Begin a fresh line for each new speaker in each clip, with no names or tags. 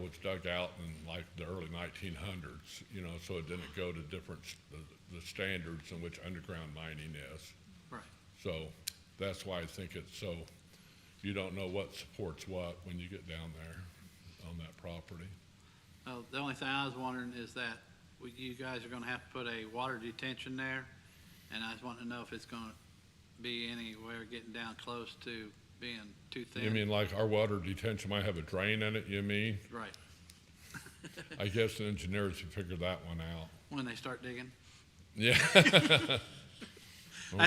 was dug out in like the early 1900s, you know, so it didn't go to different, s- the- the standards in which underground mining is.
Right.
So that's why I think it's so, you don't know what supports what when you get down there on that property.
Uh, the only thing I was wondering is that we- you guys are gonna have to put a water detention there, and I was wanting to know if it's gonna be anywhere getting down close to being too thin.
You mean like our water detention might have a drain in it, you mean?
Right,
I guess the engineers should figure that one out.
when they start digging.
Yeah.
That's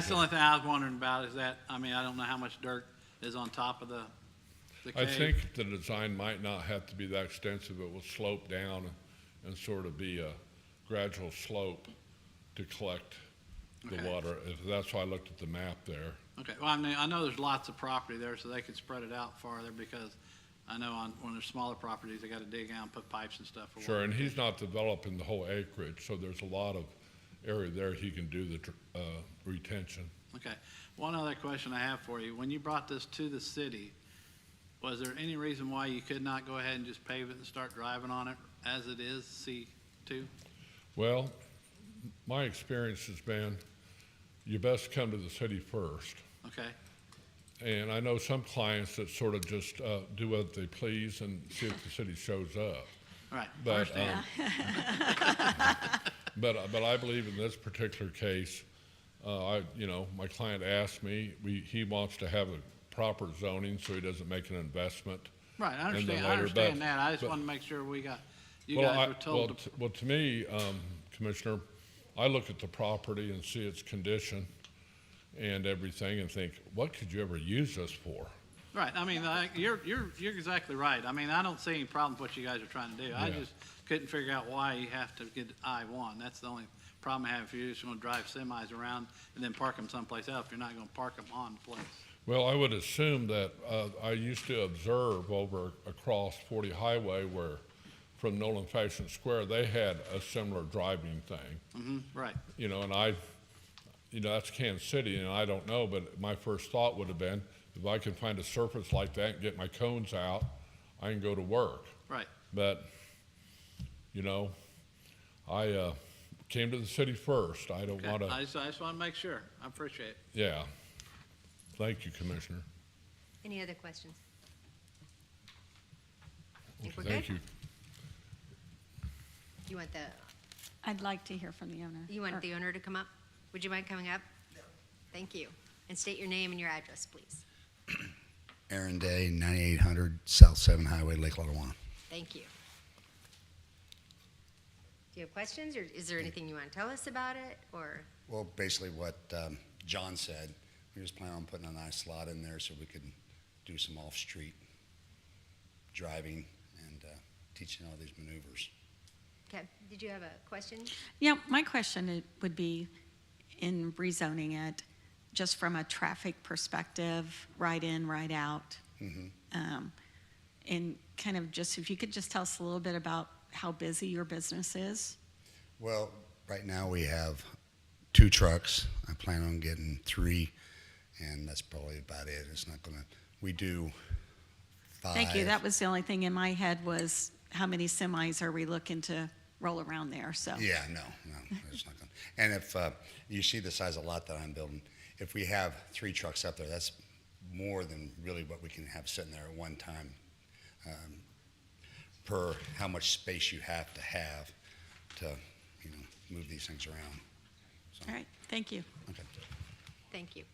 the only thing I was wondering about is that, I mean, I don't know how much dirt is on top of the, the
I
cave.
think the design might not have to be that extensive. It will slope down and sort of be a gradual slope to collect the
Okay.
water. If- That's why I looked at the map there.
Okay, well, I mean, I know there's lots of property there, so they could spread it out farther because I know on, when there's smaller properties, they gotta dig out and put pipes and stuff. for
Sure,
water.
and he's not developing the whole acreage, so there's a lot of area there he can do the dr- uh, retention.
Okay, one other question I have for you. When you brought this to the city, was there any reason why you could not go ahead and just pave it and start driving on it as it is C two?
Well, my experience has been, you best come to the city first.
Okay,
And I know some clients that sort of just uh, do what they please and see if the city shows up.
all right. I
But, um,
understand.
But, uh, but I believe in this particular case, uh, I, you know, my client asked me, we, he wants to have a proper zoning so he doesn't make an investment.
Right, I
and then
understand, I
later, but-
understand that. I just
but-
wanted to make sure we got, you
Well, I-
guys were told
well,
to
t- Well, to me, um, Commissioner, I look at the property and see its condition and everything and think, what could you ever use this for?
Right, I mean, I- you're, you're, you're exactly right. I mean, I don't see any problem with what you guys are trying to do. I
Yeah.
just couldn't figure out why you have to get I one. That's the only problem I have if you're just gonna drive semis around and then park them someplace else. You're not gonna park them on the place.
Well, I would assume that, uh, I used to observe over across Forty Highway where, from Nolan Fashion Square, they had a similar driving thing.
hmm right,
you know, and I, you know, that's Kansas City, and I don't know, but my first thought would have been, if I can find a surface like that and get my cones out, I can go to work.
right.
But, you know, I uh, came to the city first. I don't
Okay.
want
I
to.
just, I just wanna make sure. I appreciate it.
Yeah. Thank you, Commissioner.
Any other questions? Think we're
Thank
good?
you.
You want the,
I'd like to hear from the owner.
you want
Or-
the owner to come up? Would you mind coming up? Thank you. And state your name and your address, please.
Aaron Day, 9800 South 7 Highway, Lake Lotawana.
Thank you. Do you have questions, or is there anything you want to tell us about it, or,
Well, basically what um, John said, we was planning on putting a nice lot in there so we could do some off-street driving and uh, teaching all these maneuvers.
okay, did you have a question?
Yeah, my question i- would be in rezoning it, just from a traffic perspective, right in, right out. Um, And kind of just, if you could just tell us a little bit about how busy your business is.
Well, right now we have two trucks. I plan on getting three, and that's probably about it. It's not gonna, we do five.
Thank you. That was the only thing in my head was how many semis are we looking to roll around there? So
Yeah, no, no, it's not gonna. And if uh, you see the size of lot that I'm building, if we have three trucks up there, that's more than really what we can have sitting there at one time. Um, per how much space you have to have to, you know, move these things around. So,
All right, thank you.
Okay.
Thank you.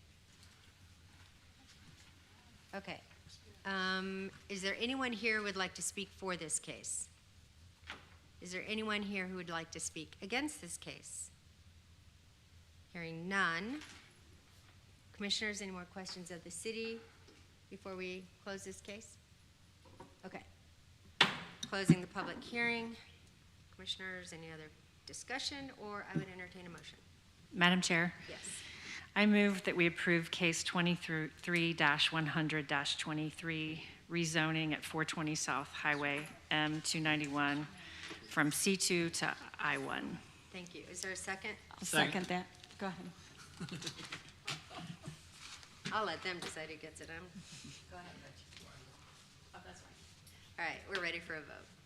Okay. Um, Is there anyone here who would like to speak for this case? Is there anyone here who would like to speak against this case? Hearing none. Commissioners, any more questions of the city before we close this case? Okay. Closing the public hearing. Commissioners, any other discussion, or I would entertain a motion.
Madam Chair,
Yes.
I move that we approve case 23-100-23, rezoning at 420 South Highway M291 from C2 to I1.
Thank you. Is there a second?
I'll
Second.
second that. Go ahead.
I'll let them decide who gets it. I'm, go ahead, Butch. Oh, that's fine. All right, we're ready for a vote.